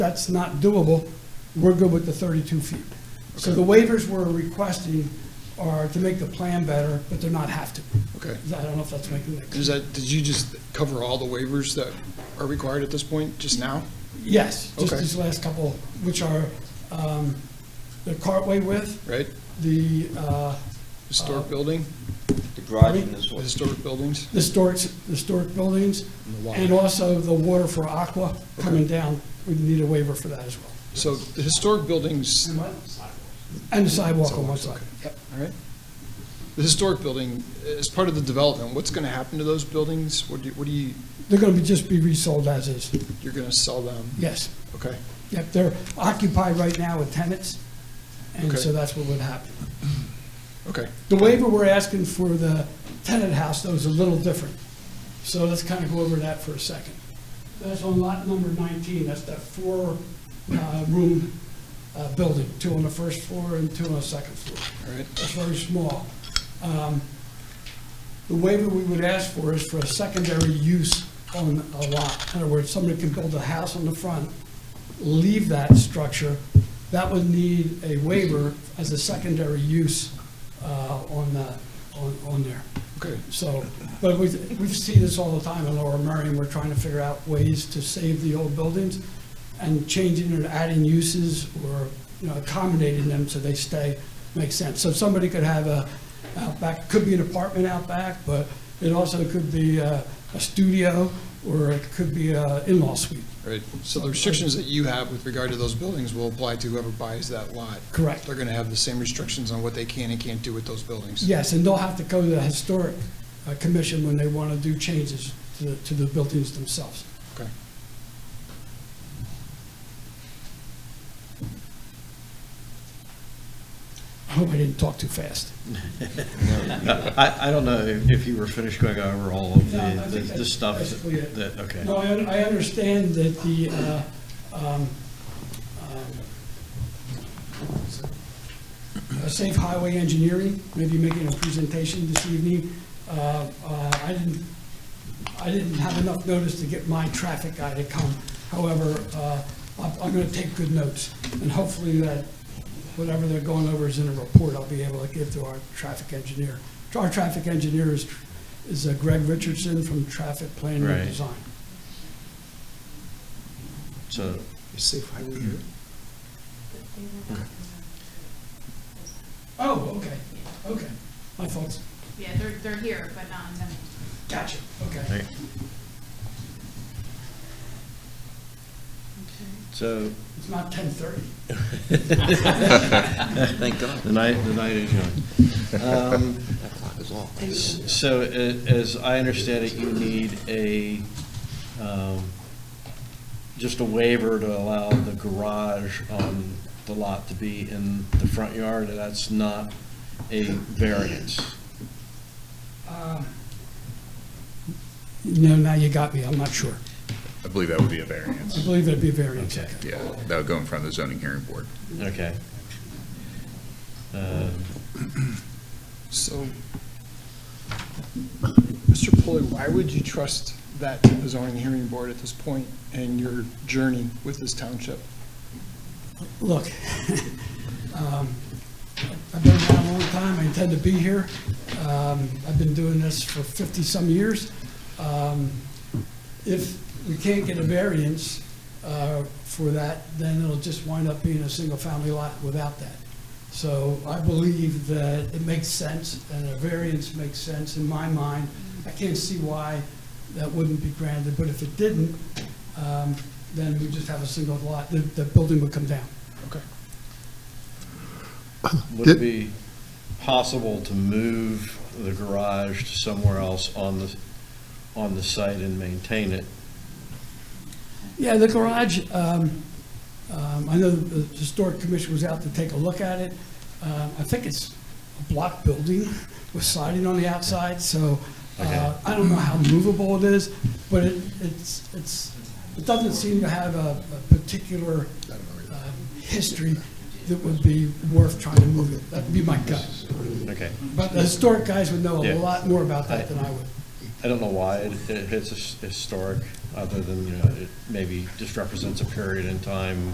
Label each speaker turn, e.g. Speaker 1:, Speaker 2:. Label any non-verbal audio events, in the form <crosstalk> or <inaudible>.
Speaker 1: that's not doable, we're good with the 32 feet. So the waivers we're requesting are to make the plan better, but they're not have to.
Speaker 2: Okay.
Speaker 1: I don't know if that's making that clear.
Speaker 2: Does that, did you just cover all the waivers that are required at this point, just now?
Speaker 1: Yes, just
Speaker 2: Okay.
Speaker 1: these last couple, which are um, the cartway width,
Speaker 2: Right?
Speaker 1: the uh,
Speaker 2: Historic building,
Speaker 3: The garage in this
Speaker 2: the
Speaker 3: one.
Speaker 2: historic buildings?
Speaker 1: historic, historic buildings,
Speaker 2: And the water.
Speaker 1: and also the water for aqua coming down. We need a waiver for that as well.
Speaker 2: So the historic buildings, all
Speaker 1: And the sidewalk on one side. Yep.
Speaker 2: right? The historic building, as part of the development, what's going to happen to those buildings? What do you, what do you,
Speaker 1: They're going to be, just be resold as is.
Speaker 2: you're going to sell them?
Speaker 1: Yes.
Speaker 2: Okay.
Speaker 1: Yep, they're occupied right now with tenants, and
Speaker 2: Okay.
Speaker 1: so that's what would happen.
Speaker 2: Okay.
Speaker 1: The waiver we're asking for the tenant house, though, is a little different. So let's kind of go over that for a second. That's on lot number 19, that's that four-room uh, building, two on the first floor and two on the second floor.
Speaker 2: All right.
Speaker 1: It's very small. Um, The waiver we would ask for is for a secondary use on a lot. In other words, somebody can build a house on the front, leave that structure, that would need a waiver as a secondary use uh, on the, on on there.
Speaker 2: Okay.
Speaker 1: So, but we, we see this all the time in Lower Merion, we're trying to figure out ways to save the old buildings and changing and adding uses or, you know, accommodating them so they stay, makes sense. So somebody could have a, out back, could be an apartment out back, but it also could be a, a studio or it could be a in-law suite.
Speaker 2: Right. So the restrictions that you have with regard to those buildings will apply to whoever buys that lot.
Speaker 1: Correct.
Speaker 2: They're going to have the same restrictions on what they can and can't do with those buildings.
Speaker 1: Yes, and they'll have to go to the historic uh, commission when they want to do changes to, the- to the buildings themselves. <laughs>
Speaker 2: Okay.
Speaker 1: I hope I didn't talk too fast.
Speaker 4: I, I don't know if if you were finished going over all of
Speaker 1: No, I think
Speaker 4: the, the- the
Speaker 1: that's
Speaker 4: stuff
Speaker 1: basically it.
Speaker 4: that, okay.
Speaker 1: No, I, un- I understand that the, uh, um, um, uh, Safe Highway Engineering may be making a presentation this evening. Uh, uh, I didn't, I didn't have enough notice to get my traffic guy to come. However, uh, I'm, I'm gonna take good notes, and hopefully that, whatever they're going over is in a report I'll be able to give to our traffic engineer. Our traffic engineer is, is uh, Greg Richardson from Traffic Planning and
Speaker 4: Right.
Speaker 1: Design.
Speaker 4: So,
Speaker 2: Is Safe Highway here?
Speaker 1: Oh, okay, okay. My fault.
Speaker 5: Yeah, they're, they're here, but not in Denver.
Speaker 1: Gotcha. Okay.
Speaker 4: okay. so
Speaker 1: It's not ten thirty.
Speaker 3: <laughs> Thank God.
Speaker 4: the night, the night is young. Um,
Speaker 3: That clock is off.
Speaker 4: s- So a- as I understand it, you need a, um, just a waiver to allow the garage on the lot to be in the front yard. and That's not a variance.
Speaker 1: Uh, No, now you got me. I'm not sure.
Speaker 6: I believe that would be a
Speaker 1: I
Speaker 6: variance.
Speaker 1: believe that'd be a variance.
Speaker 4: Okay.
Speaker 6: Yeah, that would go in front of the zoning hearing board.
Speaker 4: Okay. Um,
Speaker 2: So, Mr. Pulley, why would you trust that to the zoning hearing board at this point in your journey with this township?
Speaker 1: Look, <laughs> um, I've been around a long time. I intend to be here. Um, I've been doing this for fifty-some years. Um, If we can't get a variance uh, for that, then it'll just wind up being a single-family lot without that. So I believe that it makes sense, and a variance makes sense in my mind. I can't see why that wouldn't be granted, but if it didn't, um, then we just have a single lot, the, the building would come down.
Speaker 2: Okay.
Speaker 4: Would it be possible to move the garage to somewhere else on the, on the site and maintain it?
Speaker 1: Yeah, the garage, um, um, I know the historic commission was out to take a look at it. Um, I think it's a block building with siding on the outside, so
Speaker 4: Okay.
Speaker 1: uh, I don't know how movable it is, but it, it's, it's, it doesn't seem to have a a particular um, history that would be worth trying to move it. That'd be my gut.
Speaker 4: Okay.
Speaker 1: But the historic guys would know a
Speaker 4: Yeah.
Speaker 1: lot more about that than I would.
Speaker 4: I don't know why, it- if it's his- historic, other than, you know, it maybe just represents a period in time